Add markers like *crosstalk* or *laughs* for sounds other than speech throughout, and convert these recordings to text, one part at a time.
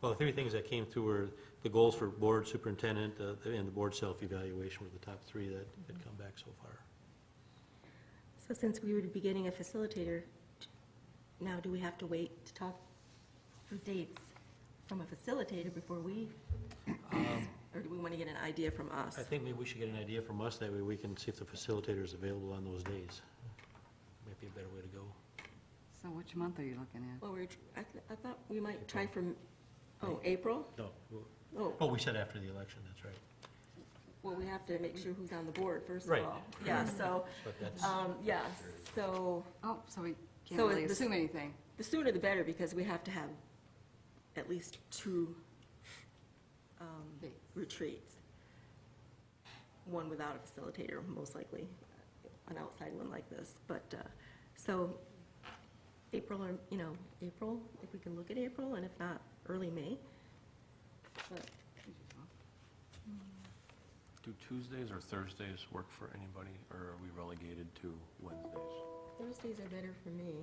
Well, the three things that came through were the goals for board superintendent uh, and the board self-evaluation were the top three that had come back so far. So since we would be getting a facilitator, now do we have to wait to talk for dates from a facilitator before we, Um, or do we want to get an idea from us? I think maybe we should get an idea from us, that way we can see if the facilitator is available on those days. Might be a better way to go. So which month are you looking at? Well, we're, tr- I, th- I thought we might try from, oh, April? No, well, Oh, oh, we said after the election, that's right. well, we have to make sure who's on the board, first of Right. all. Yeah, so, But that's, um, yeah, so Oh, so we can't So really is this- assume anything. the sooner the better, because we have to have at least two um, Dates. retreats. One without a facilitator, most likely, an outside one like this. But, uh, so, April, or, you know, April, if we can look at April, and if not, early May. But Do Tuesdays or Thursdays work for anybody, or are we relegated to Wednesdays? Thursdays are better for me,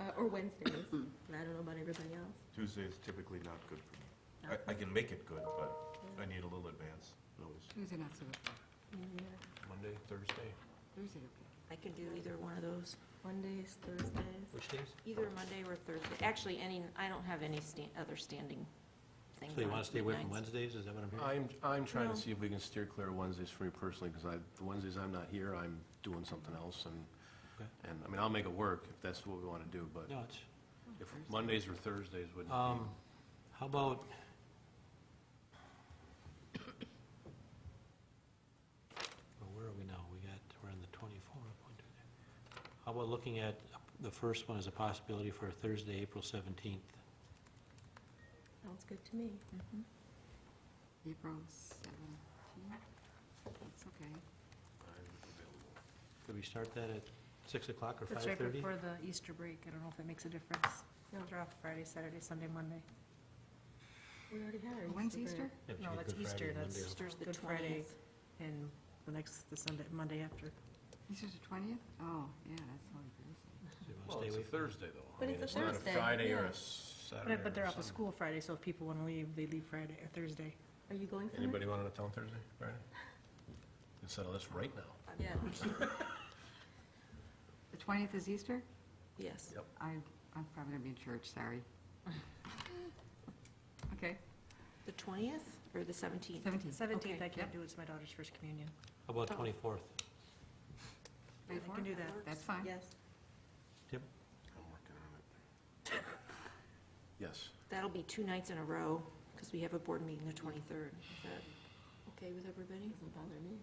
Uh, or *clears throat* Wednesdays. I don't know about everybody else. Tuesday is typically not good for me. I, I can make it good, but I need a little advance notice. Tuesday not so good. Monday, Thursday? Thursday okay. I can do either one of those, Mondays, Thursdays. which days? either Monday or Thursday. Actually, any, I don't have any stan- other standing things So you on want to stay away from midnights. Wednesdays, is that what I'm hearing? I'm, I'm trying No. to see if we can steer clear of Wednesdays for me personally, because I, the Wednesdays I'm not here, I'm doing something else, Okay. and, and, I mean, I'll make it work if that's what we want to do, but No, it's, if Mondays or Thursdays wouldn't um, be, how about? Well, where are we now? We got, we're on the twenty-four. How about looking at, the first one as a possibility for Thursday, April seventeenth? Sounds good to me. Mm-hmm. April 17th? That's okay. Could we start that at six o'clock or That's right five-thirty? before the Easter break. I don't know if it makes a difference. No. They're off Friday, Saturday, Sunday, Monday. We already had our. When's break. Oh, Easter? No, that's Easter, that's Easter's the Good Friday. 20th. And the next, the Sunday, Monday after. Easter's the 20th? Oh, yeah, that's Holy Thursday. well, it's a Thursday, though. I But mean, it's a Thursday, not a Friday or yeah. a Saturday But- or But they're off a of Sunday. school Friday, so if people want to leave, they leave Friday or Thursday. Are you going somewhere? Anybody want to tell Thursday, Friday? Let's settle this right now. Yeah, The 20th is Easter? Yes. Yep. I, I'm probably going to be in church, sorry. *laughs* Okay, The 20th or the 17th? 17th. 17th, Okay. I can't do, it's my daughter's first communion. How about twenty-fourth? May I can 4th? do that. That's fine. yes. Yep. I'm working on it. Yes. That'll be two nights in a row, because we have a board meeting the 23rd. Is that okay with everybody? Doesn't bother me.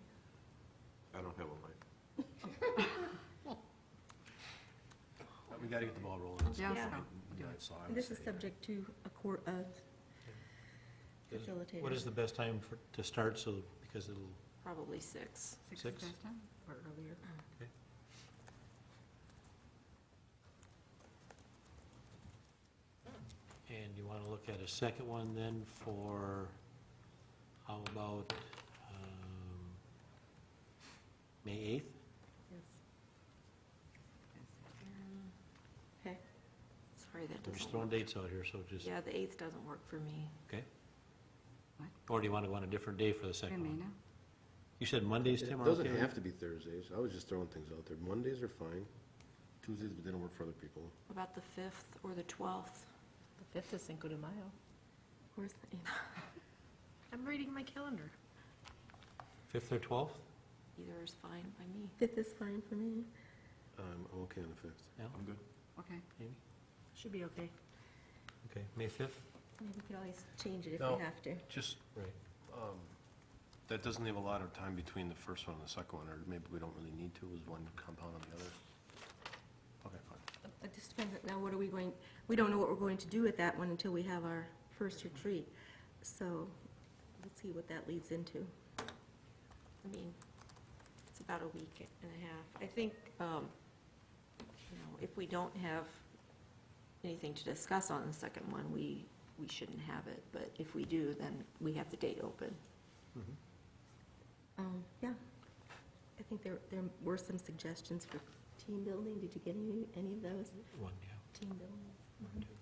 I don't have a life. We got to get the ball rolling. It's- Yeah, Yeah. so, we'll do Yeah, it. so And I would Oh. This is say- subject to a court of Is- facilitator. What is the best time for, to start, so, because it'll, Probably six. Six Six? is best time? Or earlier. and you want to look at a second one then for, how about, um, May eighth? Mm. Okay. Sorry, that I'm just doesn't throwing work. dates out here, so just, Yeah, the 8th doesn't work for me. okay? What? Or do you want to go on a different day for the Wait a second minute one? now. You said Mondays, Tim, It are okay? doesn't have to be Thursdays, I was just throwing things out there. Mondays are fine, Tuesdays didn't work for other people. About the 5th or the 12th? The 5th is Cinco de Mayo. Where's the, *laughs* I'm reading my calendar. Fifth or twelfth? Either is fine by me. fifth is fine for me. Um, I'm okay on the fifth. I'm good. Okay. Maybe? Should be okay. Okay, May fifth? Maybe we could always change it if No. we have to. Just, Right. um, that doesn't leave a lot of time between the first one and the second one, or maybe we don't really need to, is one compound on the other? Okay, fine. It just depends, now what are we going, we don't know what we're going to do with that one until we have our first retreat. So let's see what that leads into. I mean, it's about a week and a half. I think, um, you know, if we don't have anything to discuss on the second one, we, we shouldn't have it. But if we do, then we have the date open. Um, yeah. I think there, there were some suggestions for team building. Did you get any, any of those? One, yeah. Team building. One, two,